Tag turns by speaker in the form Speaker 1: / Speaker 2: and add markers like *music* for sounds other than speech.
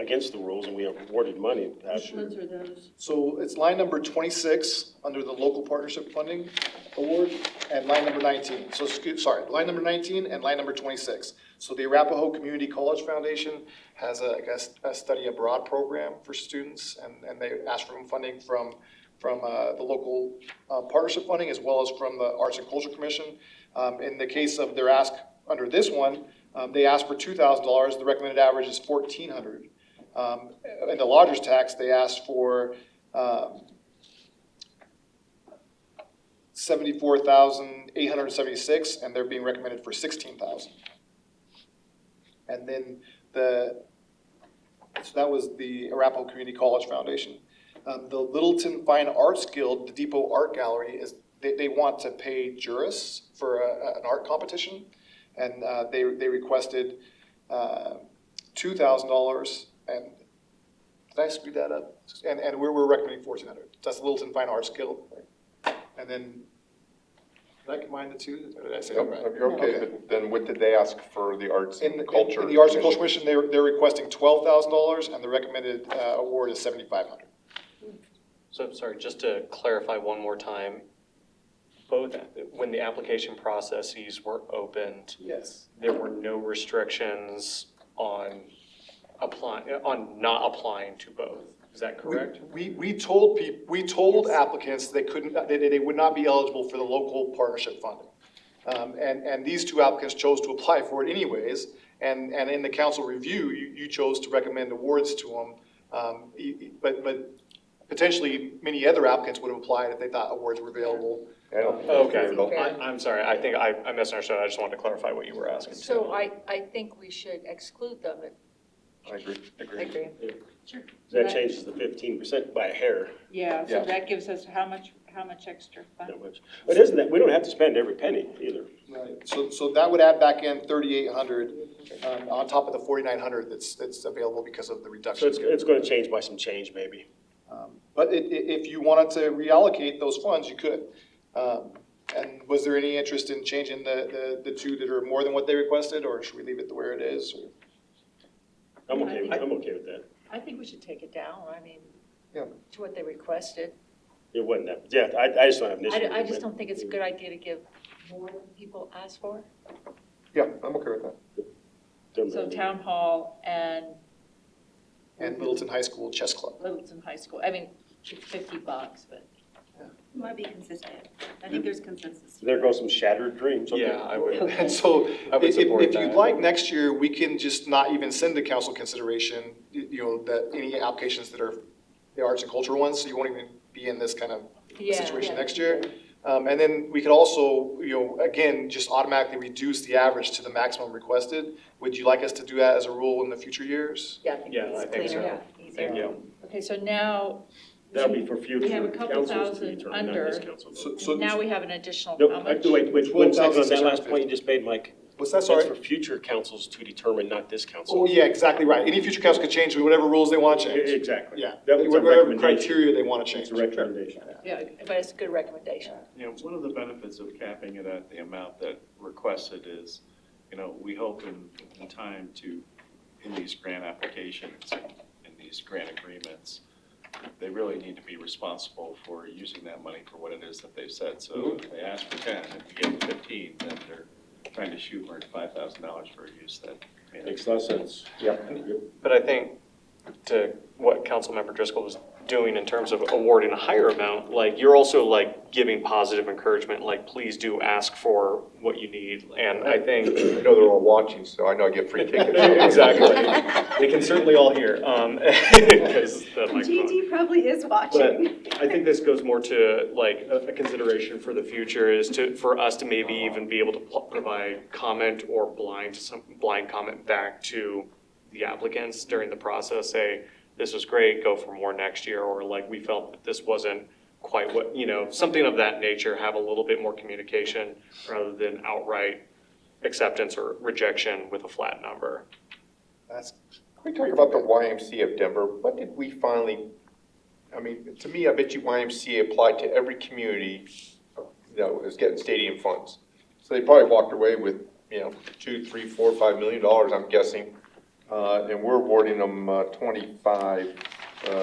Speaker 1: against the rules and we awarded money.
Speaker 2: Which ones are those?
Speaker 3: So it's line number twenty-six under the local partnership funding award and line number nineteen. So, scu- sorry, line number nineteen and line number twenty-six. So the Arapahoe Community College Foundation has a, I guess, a study abroad program for students and, and they ask for funding from, from, uh, the local, uh, partnership funding as well as from the Arts and Culture Commission. Um, in the case of their ask under this one, um, they asked for two thousand dollars. The recommended average is fourteen hundred. Um, in the lodger's tax, they asked for, um, seventy-four thousand, eight hundred and seventy-six, and they're being recommended for sixteen thousand. And then the, so that was the Arapahoe Community College Foundation. Um, the Littleton Fine Arts Guild, the Depot Art Gallery is, they, they want to pay jurists for a, an art competition. And, uh, they, they requested, uh, two thousand dollars and, did I screw that up? And, and we're, we're recommending fourteen hundred. That's the Littleton Fine Arts Guild. And then, did I combine the two? Or did I say that right?
Speaker 4: Yep, You're okay, but then what did they ask for the arts
Speaker 3: In the,
Speaker 4: and culture?
Speaker 3: in the Arts and Culture
Speaker 4: Commission?
Speaker 3: Commission, they're, they're requesting twelve thousand dollars, and the recommended, uh, award is seventy-five hundred.
Speaker 5: So I'm sorry, just to clarify one more time, both, when the application processes were opened,
Speaker 3: Yes.
Speaker 5: there were no restrictions on applying, on not applying to both. Is that correct?
Speaker 3: We, we told peop, we told applicants they couldn't, uh, they, they they would not be eligible for the local partnership funding. Um, and, and these two applicants chose to apply for it anyways, and, and in the council review, you, you chose to recommend awards to them. Um, e- e- but, but potentially, many other applicants would have applied if they thought awards were available.
Speaker 4: I don't think that's
Speaker 5: Okay,
Speaker 4: fair at all.
Speaker 5: I, I'm sorry, I think I, I misunderstood, I just wanted to clarify what you were asking.
Speaker 6: So I, I think we should exclude them.
Speaker 4: I agree.
Speaker 6: Agree.
Speaker 1: That changes the fifteen percent by a hair,
Speaker 2: Yeah, so
Speaker 4: Yeah.
Speaker 2: that gives us how much, how much extra fund?
Speaker 1: that much. But isn't that, we don't have to spend every penny either.
Speaker 3: Right, so, so that would add back in thirty-eight hundred, um, on top of the forty-nine hundred that's, that's available because of the
Speaker 1: So
Speaker 3: reduction.
Speaker 1: it's, it's gonna change by some change maybe.
Speaker 3: Um, But i- i- if you wanted to reallocate those funds, you could. Um, and was there any interest in changing the, the, the two that are more than what they requested, or should we leave it the where it is? or-
Speaker 1: I'm okay, with- I'm okay with that.
Speaker 6: I think we should take it down, I mean,
Speaker 3: Yeah.
Speaker 6: to what they requested.
Speaker 1: It wasn't that, yeah, I, I just don't have an issue.
Speaker 6: I,
Speaker 1: with
Speaker 6: I
Speaker 1: it,
Speaker 6: just
Speaker 1: but-
Speaker 6: don't think it's a good idea to give more than people ask for.
Speaker 4: Yeah, I'm okay with that.
Speaker 1: Doesn't
Speaker 2: So
Speaker 1: matter.
Speaker 2: town hall and
Speaker 3: And Middleton High School Chess Club.
Speaker 2: Littleton High School, I mean, it's fifty bucks, but.
Speaker 7: Want to be consistent. I think there's consensus.
Speaker 1: There goes some shattered dreams. okay.
Speaker 5: Yeah, I would,
Speaker 3: *laughs* And so,
Speaker 5: I
Speaker 3: if,
Speaker 5: would
Speaker 3: if-
Speaker 5: support
Speaker 3: if you'd
Speaker 5: that.
Speaker 3: like, next year, we can just not even send to council consideration, y- you know, that, any applications that are the arts and culture ones, so you won't even be in this kind of
Speaker 6: Yeah,
Speaker 3: situation
Speaker 6: yeah.
Speaker 3: next year. Um, and then we could also, you know, again, just automatically reduce the average to the maximum requested. Would you like us to do that as a rule in the future years?
Speaker 6: Yeah, I think
Speaker 5: Yeah, I
Speaker 6: it's
Speaker 5: think
Speaker 6: cleaner,
Speaker 5: so.
Speaker 6: yeah,
Speaker 5: thank
Speaker 6: easier.
Speaker 5: you.
Speaker 2: Okay, so now,
Speaker 1: That would be for future
Speaker 2: We have a couple
Speaker 1: councils to
Speaker 2: thousand
Speaker 1: determine, not this
Speaker 2: under.
Speaker 1: council. though.
Speaker 3: So, so,
Speaker 2: now we have an additional
Speaker 1: No,
Speaker 2: how
Speaker 1: I-
Speaker 2: much?
Speaker 1: wait, wait, one second on that last
Speaker 3: 12,650.
Speaker 1: point you just made, Mike.
Speaker 3: was that,
Speaker 1: That's
Speaker 3: sorry?
Speaker 1: for future councils to determine, not this council.
Speaker 3: Oh, yeah, exactly right. Any future council could change whatever rules they want to change.
Speaker 1: Exactly.
Speaker 3: Yeah,
Speaker 1: That was a
Speaker 3: whatever
Speaker 1: recommendation.
Speaker 3: criteria they want to change.
Speaker 1: It's a recommendation.
Speaker 6: Yeah, but it's a good recommendation.
Speaker 8: You know, one of the benefits of capping it at the amount that requested is, you know, we hope in, in time to, in these grant applications, in these grant agreements, they really need to be responsible for using that money for what it is that they've said. So if they ask for ten, if you give them fifteen, then they're trying to shoehorn five thousand dollars for a use that. may not
Speaker 1: Makes a lot of sense.
Speaker 5: But I think to what Councilmember Driscoll was doing in terms of awarding a higher amount, like, you're also like giving positive encouragement, like, please do ask for what you need. And I think
Speaker 4: I know they're all
Speaker 3: *laughs*
Speaker 4: watching, so I know I get free tickets.
Speaker 5: *laughs* Exactly. They can certainly all hear, um, *laughs* 'cause the microphone.
Speaker 7: Gigi probably is
Speaker 5: But
Speaker 7: watching.
Speaker 5: I think this goes more to like a a consideration for the future is to, for us to maybe even be able to pl- provide comment or blind, some blind comment back to the applicants during the process, say, this was great, go for more next year, or like, we felt that this wasn't quite what, you know, something of that nature, have a little bit more communication rather than outright acceptance or rejection with a flat number.
Speaker 3: That's
Speaker 4: Can we talk about the YMCA of Denver? What did we finally, I mean, to me, I bet you YMCA applied to every community that was getting stadium funds. So they probably walked away with, you know, two, three, four, five million dollars, I'm guessing. uh, and we're awarding them uh, twenty-five